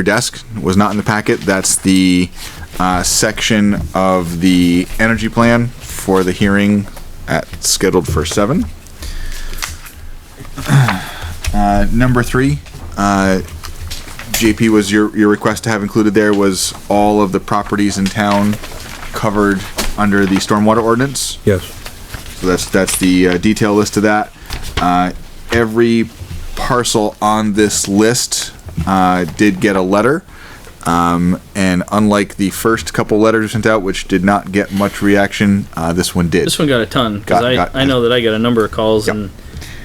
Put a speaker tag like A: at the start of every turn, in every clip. A: your desk was not in the packet. That's the uh, section of the energy plan for the hearing at scheduled for seven. Uh, number three, uh, JP was your your request to have included there was all of the properties in town covered under the stormwater ordinance.
B: Yes.
A: So that's, that's the uh, detail list of that. Uh, Every parcel on this list uh, did get a letter. Um, And unlike the first couple letters sent out, which did not get much reaction, uh, this one did.
C: This one got a ton because
A: Got-
C: I,
A: got-
C: I know that I got a number of calls
A: Yep.
C: and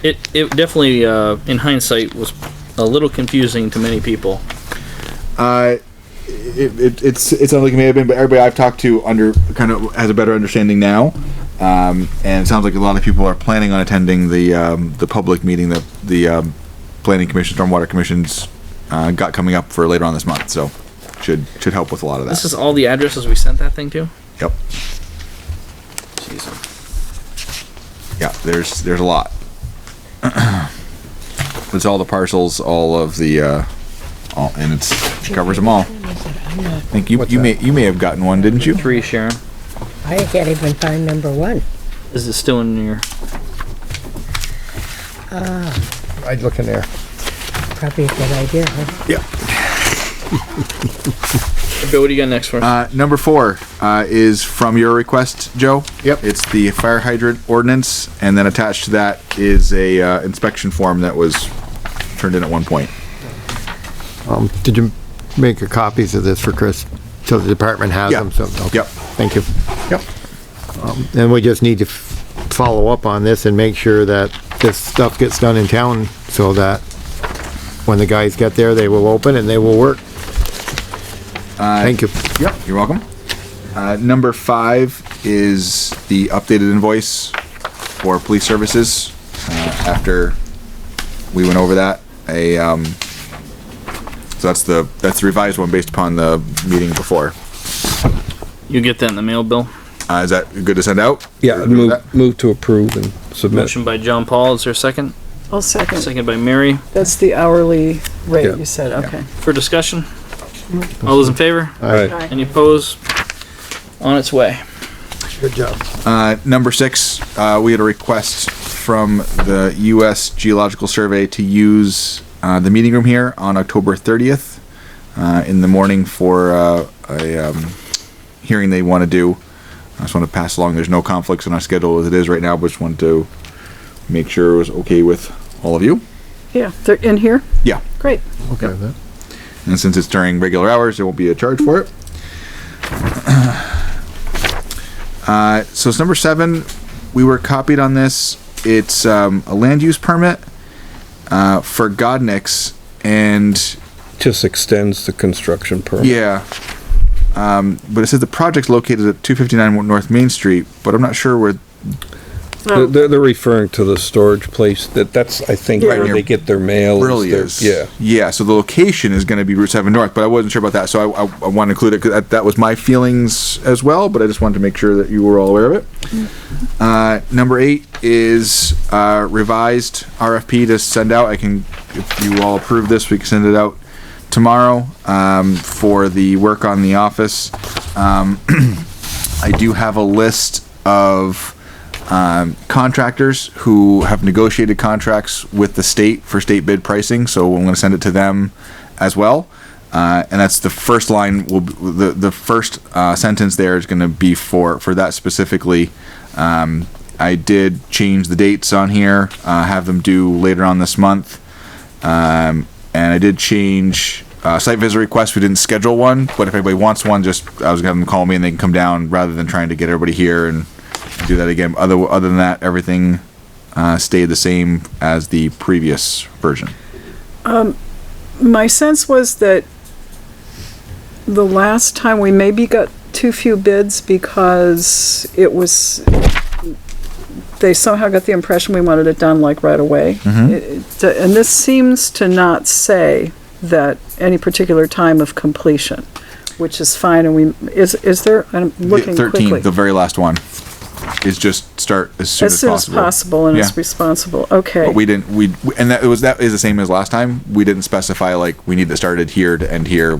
C: it it definitely uh, in hindsight was a little confusing to many people.
A: Uh, it, it, it's it sounds like it may have been, but everybody I've talked to under kind of has a better understanding now, um, and it sounds like a lot of people are planning on attending the um, the public meeting that the um, planning commission, stormwater commissions uh, got coming up for later on this month. So should should help with a lot of that.
C: This is all the addresses we sent that thing to.
A: yep. Yeah, there's there's a lot. it's all the parcels, all of the, uh, all, and it's covers them all. I think you, you may you may have gotten one, didn't you?
C: Three Sharon.
D: I can't even find number one.
C: Is it still in your?
B: I'd look in there.
D: Probably a good idea, huh?
A: Yeah.
C: Bill, what do you got next for? us?
A: Uh, number four uh, is from your request, Joe.
B: Yep.
A: It's the fire hydrant ordinance, and then attached to that is a uh, inspection form that was turned in at one point.
E: Um, Did you make your copies of this for Chris, so the department has
A: Yeah.
E: them? so- okay.
A: Yep.
E: Thank you.
A: Yep.
E: And we just need to f- follow up on this and make sure that this stuff gets done in town, so that when the guys get there, they will open and they will work.
B: Uh,
E: Thank you.
A: Yep. You're welcome. Uh, number five is the updated invoice for police services. Uh, after we went over that, a um, so that's the that's the revised one based upon the meeting before.
C: You get that in the mail, Bill.
A: Uh, is that good to send out?
B: Yeah, I'd move, move to approve and submit.
C: Motion by John Paul. Is there a second?
F: I'll second.
C: Second by Mary.
F: That's the hourly
B: Yeah.
F: rate you said, okay.
C: For discussion. All those in favor?
A: Uh,
B: All right,
C: Any opposed? On its way.
E: Good job.
A: Uh, number six, uh, we had a request from the U.S. Geological Survey to use uh, the meeting room here on October 30th uh, in the morning for uh, a um, hearing they want to do. I just want to pass along. There's no conflicts in our schedule as it is right now, but just wanted to make sure it was okay with all of you.
F: Yeah, they're in here?
A: Yeah.
F: Great.
E: Okay. with that.
A: And since it's during regular hours, there won't be a charge for it. Uh, so it's number seven. We were copied on this. It's um, a land use permit uh, for Godniks, and
B: just extends the construction permit.
A: yeah. Um, but it says the project's located at 259 North Main Street, but I'm not sure where.
B: They're, they're- they're referring to the storage place, that, that's, I think,
A: Right
B: where
A: near
B: they get their mail.
A: Really
B: their-
A: is.
B: Yeah,
A: Yeah. So the location is going to be Route 7 North, but I wasn't sure about that. So I, I, I want to include it because that, that was my feelings as well, but I just wanted to make sure that you were all aware of it. Uh, number eight is uh, revised RFP to send out. I can, if you all approve this, we can send it out tomorrow um, for the work on the office. Um, I do have a list of um, contractors who have negotiated contracts with the state for state bid pricing, so I'm going to send it to them as well. Uh, and that's the first line. Will be, the the first uh, sentence there is going to be for for that specifically. Um, I did change the dates on here. Uh, have them due later on this month. Um, and I did change uh, site visit request. We didn't schedule one, but if anybody wants one, just I was gonna call me and they can come down rather than trying to get everybody here and do that again. Other other than that, everything uh, stayed the same as the previous version.
F: My sense was that the last time we maybe got too few bids because it was, they somehow got the impression we wanted it done like right away.
A: Mm-hmm.
F: It- it- And this seems to not say that any particular time of completion, which is fine, and we, is, is there, I'm looking
A: Thirteen,
F: quickly.
A: the very last one. is just start as soon
F: as
A: as
F: soon as
A: possible.
F: possible and as
A: Yeah.
F: responsible, okay.
A: But we didn't, we, and that was, that is the same as last time. We didn't specify like, we need to start it here to end here.